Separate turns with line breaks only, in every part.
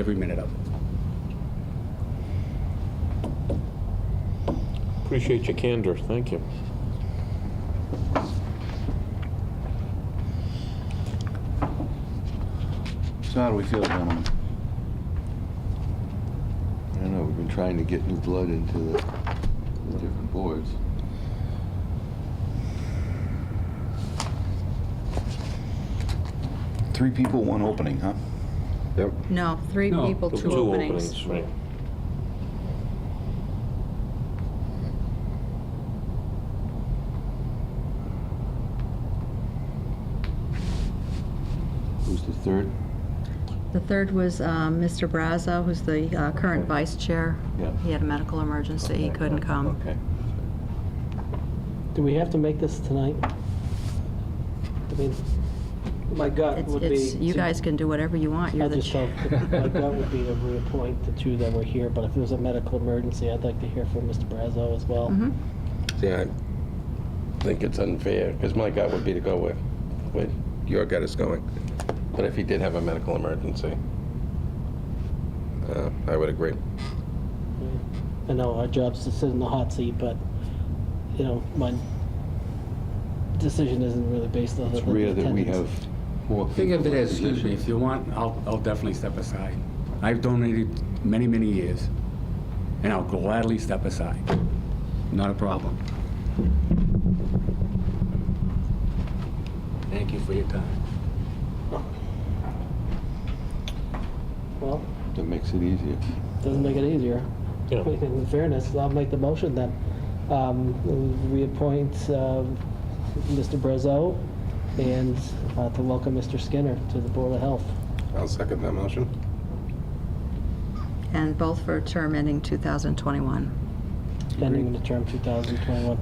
every minute of it.
Appreciate your candor, thank you.
So how do we feel, gentlemen?
I don't know, we've been trying to get new blood into the, the different boards.
Three people, one opening, huh?
Yep.
No, three
No,
people, two openings.
Right.
Who's the third?
The third was um, Mr. Brazo, who's the uh, current vice chair.
Yeah.
He had a medical emergency, he couldn't come.
Okay.
Do we have to make this tonight? I mean, my gut
It's,
would be...
it's, you
to-
guys can do whatever you want,
I
you're the
just
chair.
felt, that my gut would be to reappoint the two that were here, but if it was a medical emergency, I'd like to hear from Mr. Brazo as well.
Mhm.
See, I think it's unfair, because my gut would be to go with, with your gut is going. But if he did have a medical emergency, uh, I would agree.
Mm-hmm.
I know our job's to sit in the hot seat, but, you know, my decision isn't really based on the
It's rare that we
attendance.
have more people.
Think of it
in a
as, excuse me,
position.
if you want, I'll, I'll definitely step aside. I've donated many, many years, and I'll gladly step aside. Not a problem. Thank you for your time.
Well,
That makes it easier.
doesn't make it easier.
Yeah.
In fairness, I'll make the motion then. Um, we appoint, um, Mr. Brazo and, uh, to welcome Mr. Skinner to the Board of Health.
I'll second that motion.
And both for a term ending 2021.
Ending the term 2021.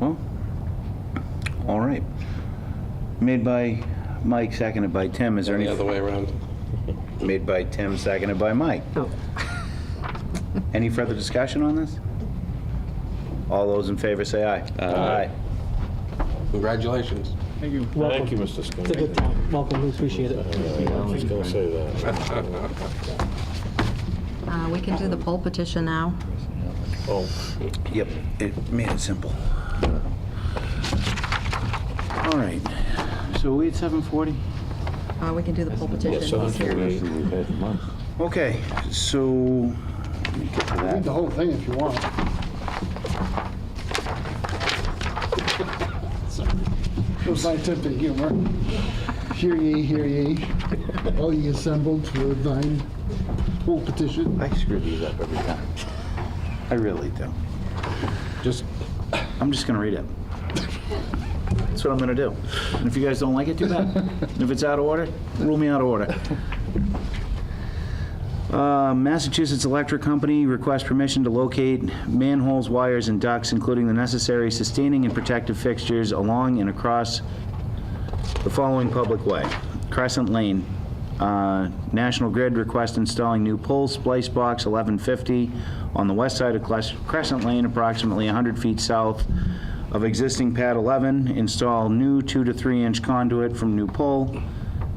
Well, all right. Made by Mike, seconded by Tim. Is there
The
any,
other way around.
made by Tim, seconded by Mike. Any further discussion on this? All those in favor say aye. Aye.
Congratulations.
Welcome.
Thank you, Mr. Skinner.
It's a good time. Welcome, we appreciate it.
I was gonna say that.
Uh, We can do the poll petition now.
Oh,
Yep, it made it simple. All right, so we at 7:40?
Uh, We can do the poll petition.
so
He's here.
that's-
We've had a month.
Okay, so, let me get to that.
Read the whole thing if you want. It was my attempt at humor. Hear ye, hear ye, all ye assembled for thine full petition.
I screw these up every time. I really do.
Just,
I'm just gonna read it. That's what I'm gonna do. And if you guys don't like it, too bad. And if it's out of order, rule me out of order. Uh, Massachusetts Electric Company requests permission to locate manholes, wires, and ducts, including the necessary sustaining and protective fixtures along and across the following public way. Crescent Lane, uh, National Grid request installing new pole splice box 1150 on the west side of Cres- Crescent Lane, approximately 100 feet south of existing pad 11. Install new 2 to 3 inch conduit from new pole,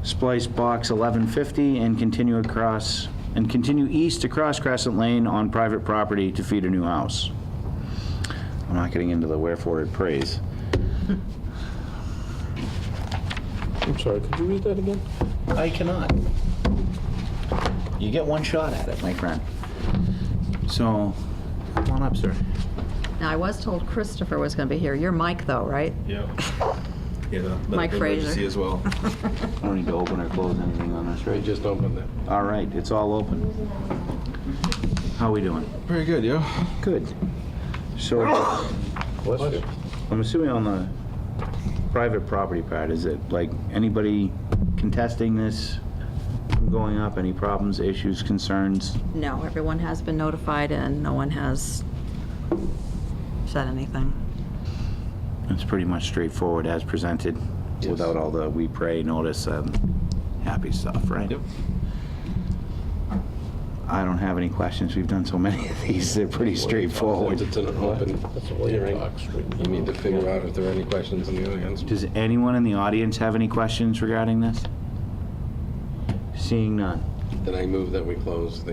splice box 1150, and continue across, and continue east across Crescent Lane on private property to feed a new house. I'm not getting into the wherefore it prays.
I'm sorry, could you read that again?
I cannot. You get one shot at it, my friend. So, come on up, sir.
Now, I was told Christopher was going to be here. You're Mike, though, right?
Yeah. Yeah.
Mike Fraser.
as well.
I don't need to open or close anything on this,
I
right?
just opened it.
All right, it's all open. How we doing?
Very good, yeah.
Good. So,
Bless you.
I'm assuming on the private property part, is it like anybody contesting this from going up? Any problems, issues, concerns?
No, everyone has been notified and no one has said anything.
It's pretty much straightforward as presented, without all the we pray notice and happy stuff, right? Yep. I don't have any questions. We've done so many of these, they're pretty straightforward.
Since It's an open hearing. You need to figure out if there are any questions in the audience.
Does anyone in the audience have any questions regarding this? Seeing none.
Then I move that we close the